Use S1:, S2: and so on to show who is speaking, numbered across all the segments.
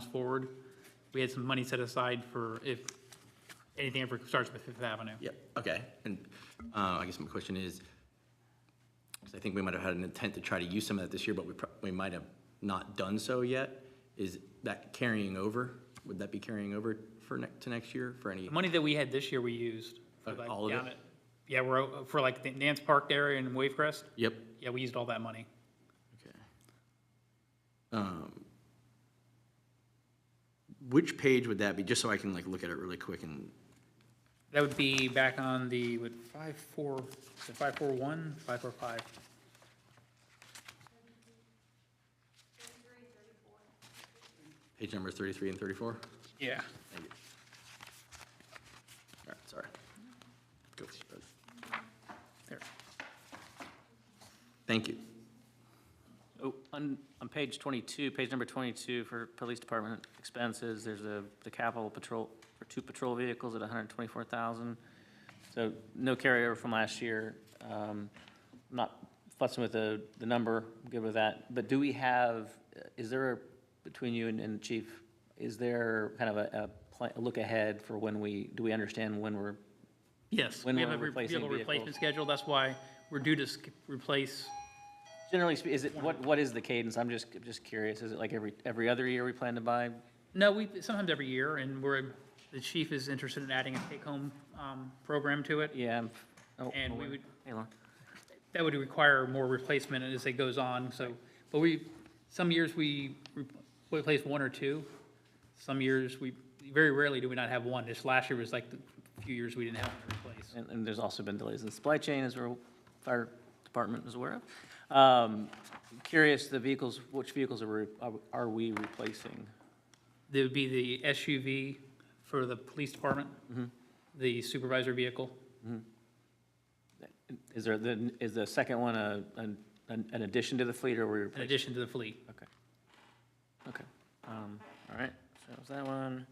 S1: comes forward. We had some money set aside for if anything ever starts with Fifth Avenue.
S2: Yeah, okay. And uh, I guess my question is, 'cause I think we might have had an intent to try to use some of that this year, but we, pro- we might have not done so yet. Is that carrying over? Would that be carrying over for next, to next year for any?
S1: The money that we had this year, we used. for,
S2: Okay,
S1: like,
S2: all of
S1: down
S2: it?
S1: at- Yeah, we're, o- for like the Nance Park area and Wave Crest.
S2: Yep.
S1: Yeah, we used all that money.
S2: Okay. Um, Which page would that be? Just so I can like look at it really quick and,
S1: That would be back on the, with five, four, is it five, four, one, five, four, five?
S2: page numbers 33 and 34?
S1: Yeah.
S2: Thank you. All right, sorry. Go for it.
S1: There.
S2: Thank you.
S3: Oh, on, on page 22, page number 22 for police department expenses, there's a, the capital patrol, for two patrol vehicles at 124,000. So no carryover from last year. Um, I'm Not fussing with the, the number, I'm good with that. But do we have, is there, between you and, and chief, is there kind of a, a plan, a look ahead for when we, do we understand when we're,
S1: Yes,
S3: When
S1: we have
S3: we're
S1: a, re- we
S3: replacing
S1: have a replacement
S3: vehicles.
S1: schedule. That's why we're due to sk- replace
S3: generally, spe- is it, what, what is the cadence? I'm just, just curious. Is it like every, every other year we plan to buy?
S1: No, we, sometimes every year, and we're, the chief is interested in adding a take-home um, program to it.
S3: Yeah. I'm- oh,
S1: And we
S3: oh,
S1: would-
S3: hey, Lauren.
S1: That would require more replacement as it goes on, so, but we, some years we re- replace one or two. Some years, we, very rarely do we not have one. This last year was like the few years we didn't have to replace.
S3: And, and there's also been delays in the supply chain, as our fire department is aware of. Um, Curious, the vehicles, which vehicles are, we- are- are we replacing?
S1: There would be the SUV for the police department,
S3: Mm-hmm.
S1: the supervisor vehicle.
S3: Is there, the is the second one a, an, an an addition to the fleet, or are we
S1: in
S3: replacing?
S1: addition to the fleet.
S3: Okay. Okay, um, all right, so that was that one.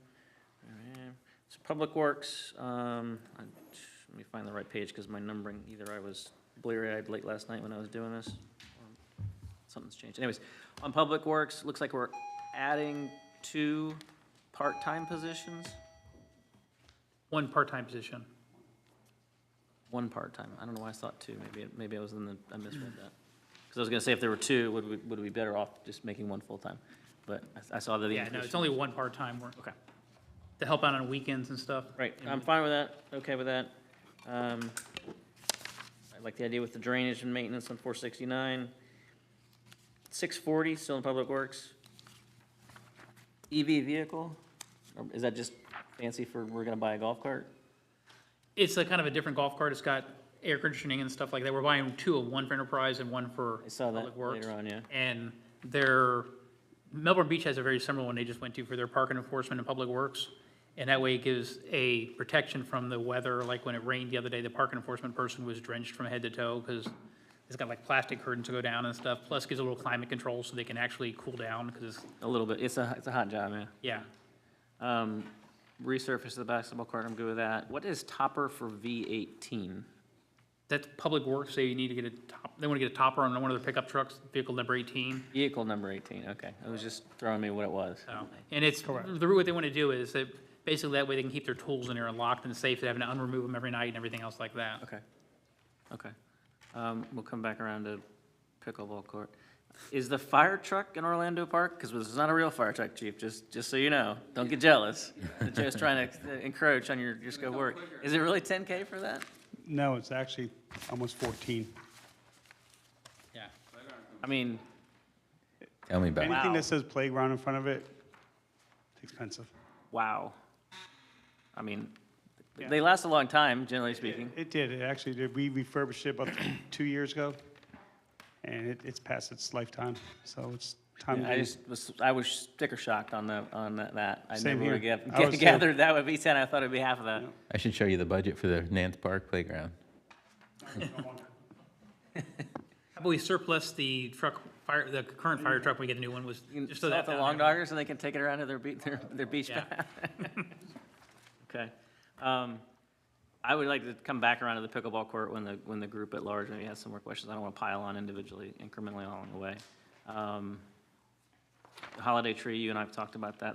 S3: All right. So Public Works, um, I- let me find the right page, because my numbering, either I was bleary-eyed late last night when I was doing this, or something's changed. Anyways, on Public Works, looks like we're adding two part-time positions,
S1: One part-time position.
S3: one part-time. I don't know why I thought two, maybe, it- maybe I was in the, I misread that. Because I was gonna say, if there were two, would we, would we be better off just making one full-time? But I I saw that. the
S1: Yeah, no, it's
S3: increase-
S1: only one part-time work,
S3: Okay.
S1: to help out on weekends and stuff.
S3: Right, Um, I'm fine with that, okay with that. Um, I like the idea with the drainage and maintenance on four sixty-nine. Six forty, still in Public Works. EV E vehicle, or is that just fancy for, we're gonna buy a golf cart?
S1: It's a kind of a different golf cart. It's got air conditioning and stuff like that. We're buying two of one for Enterprise and one for
S3: I saw that
S1: Public Works.
S3: later on, yeah.
S1: And their, Melbourne Beach has a very similar one they just went to for their park and enforcement and Public Works. And that way it gives a protection from the weather, like when it rained the other day, the park and enforcement person was drenched from head to toe because it's got like plastic curtains to go down and stuff, plus gives a little climate control so they can actually cool down because,
S3: A little bit, it's a, it's a hot job, man.
S1: yeah.
S3: Um, resurface the basketball court, I'm good with that. What is topper for V eighteen?
S1: That's Public Works, they need to get a top, they want to get a topper on one of their pickup trucks, vehicle number eighteen.
S3: Vehicle number eighteen, okay, it was just throwing me what it was.
S1: So, And it's, the what they want to do is that, basically that way they can keep their tools in there and locked and safe, they having to unremove them every night and everything else like that.
S3: Okay, okay. Um, we'll come back around to pickleball court. Is the fire truck in Orlando Park? Because this is not a real fire truck, chief, just, just so you know. Don't get jealous. Joe's trying to encroach on your, your scope of work. Is it really ten K for that?
S4: No, it's actually almost 14.
S1: Yeah.
S3: I mean,
S5: Tell me about it.
S4: Anything
S3: Wow.
S4: that says playground in front of it, it's expensive.
S3: wow. I mean, they last a long time, generally speaking.
S4: It did, it actually did. We refurbished it about two years ago, and it, it's past its lifetime, so it's time.
S3: I
S4: to-
S3: just was, I was sticker shocked on the, on that- that. I
S4: Same
S3: never would
S4: here.
S3: have
S4: I was too.
S3: gathered that would be ten. I thought it'd be half of that.
S5: I should show you the budget for the Nance Park playground.
S1: How about we surplus the truck, fire, the current fire truck, when we get a new one, was,
S3: You can
S1: just so
S3: sell it
S1: that.
S3: to
S1: down
S3: long
S1: there.
S3: doggers and they can take it around to their beach, their, their beach
S1: Yeah.
S3: pad. Okay. Um, I would like to come back around to the pickleball court when the, when the group at large maybe has some more questions. I don't want to pile on individually, incrementally along the way. Um, the Holiday tree, you and I have talked about that.